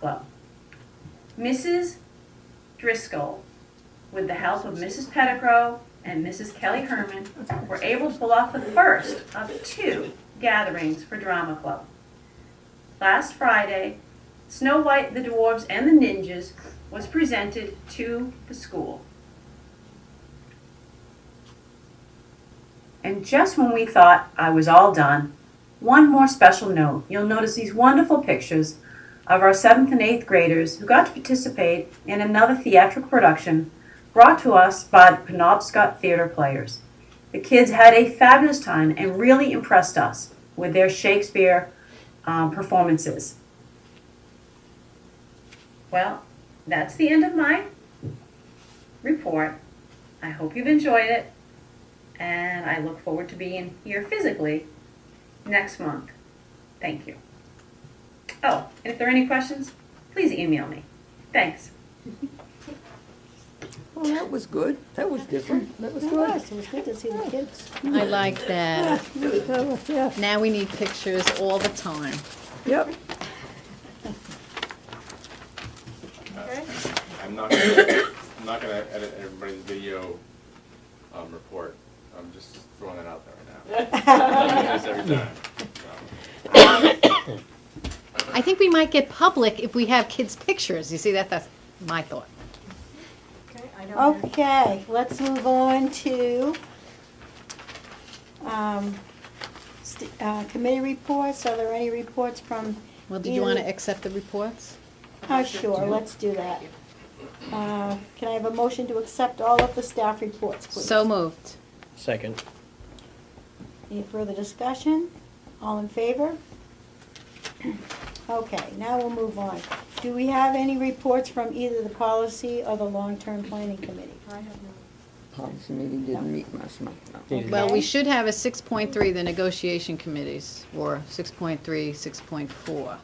Well, Mrs. Driscoll, with the help of Mrs. Pettigrew and Mrs. Kelly Herman, were able to pull off the first of two gatherings for Drama Club. Last Friday, Snow White, the Dwarfs, and the Ninjas was presented to the school. And just when we thought I was all done, one more special note. You'll notice these wonderful pictures of our 7th and 8th graders who got to participate in another theatrical production brought to us by the Penobscot Theater Players. The kids had a fabulous time and really impressed us with their Shakespeare um, performances. Well, that's the end of my report. I hope you've enjoyed it, and I look forward to being here physically next month. Thank you. Oh, and if there are any questions, please email me. Thanks. Well, that was good. That was different. That was It good. was, it was good to see the kids. I like that. That was- yeah. Now we need pictures all the time. Yep. I'm not gonna, I'm not gonna edit everybody's video, um, report, I'm just throwing it out there right now. I do this every time, so. I think we might get public if we have kids' pictures. You see that? That's my thought. Okay, let's move on to um, st- uh, committee reports. Are there any reports from? Well, did you want to either- accept the reports? Oh, sure, let's do that. Uh, Can I have a motion to accept all of the staff reports, please? So moved. Second. Any further discussion? All in favor? Okay, now we'll move on. Do we have any reports from either the policy or the long-term planning committee? Policy meeting didn't meet last month, no. Needed. Well, Okay. we should have a 6.3, the negotiation committees, or 6.3, 6.4.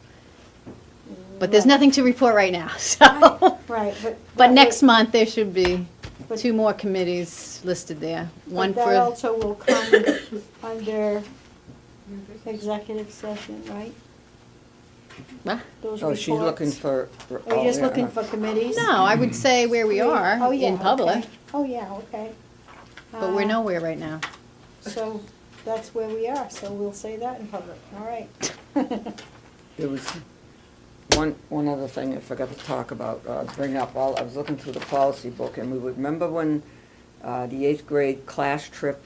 But there's nothing to report right now, so. Right, but. But next month, there should be But- two more committees listed there. One But that for, also will come under executive session, right? Huh? Those Oh, she's looking reports? for. for- Are oh, you just yeah, looking uh, for committees? no, I would say where we Oh, are yeah, in okay. public, Oh, yeah, okay. but we're Uh, nowhere right now. So that's where we are, so we'll say that in public, all right. There was one, one other thing I forgot to talk about, uh, bring up, while I was looking through the policy book, and we would, remember when, uh, the eighth grade class trip,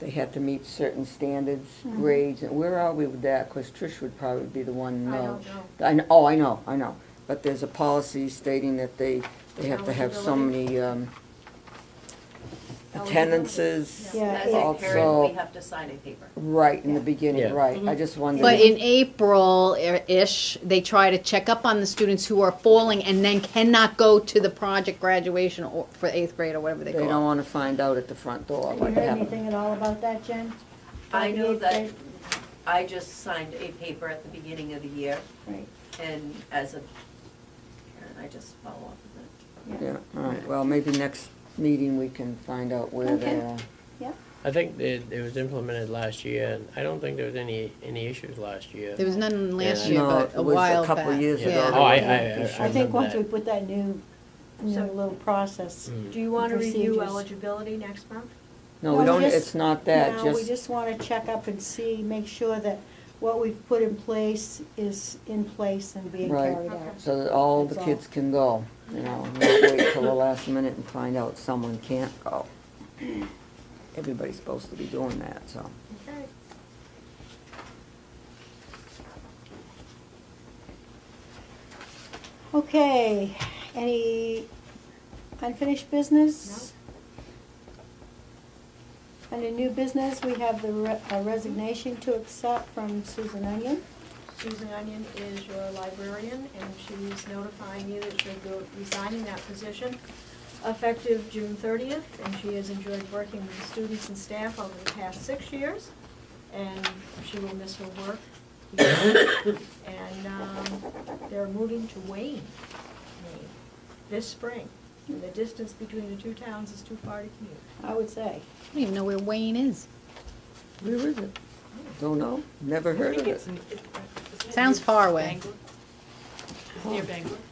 they had to meet certain standards, grades, and where are we with that? Cause Trish would probably be the one, uh. I don't know. oh, I know, I know, but there's a policy stating that they, they have to have so many, um, attendances. Yeah. As a parent, Also- we have to sign a paper. Right, in the Yeah. beginning, Yeah. right, I just wondered. But in April-ish, they try to check up on the students who are falling and then cannot go to the project graduation or for eighth grade or whatever they They don't call it. wanna find out at the front door Have you what heard happened. anything at all about that, Jen? I know About the that eighth I just signed a paper at the beginning of the year, grade? and as a parent, I just follow up with it. Right, yeah. Yeah, all right, well, maybe next meeting we can find out where they are. I think it, it was implemented last year, and I don't think there was any, any issues last year. There was none last Yeah. year, No, but it a was a while back. couple years ago. Yeah. Oh, I, I, I I think remember once we that. put that new, new little process. Do you want to review Procedures. eligibility next month? No, Well, we don't, just- it's not that, No, we just, just wanna check up and see, make sure that what we've put in place is in place and being Right. carried out. so that all the That's all. kids can go, you know, not wait till the last minute and find out someone can't go. Everybody's supposed to be doing that, so. Okay. Okay, any unfinished business? Under new business, we have the re- a resignation to accept from Susan Onion. Susan Onion is your librarian, and she's notifying you that she'll be resigning that position effective June thirtieth, and she has enjoyed working with students and staff over the past six years, and she will miss her work. And, um, they're moving to Wayne, Maine, this spring. And the distance between the two towns is too far to commute. I would say. I don't even know where Wayne is. Where is it? Don't know, never heard of it. Sounds far away. You're big.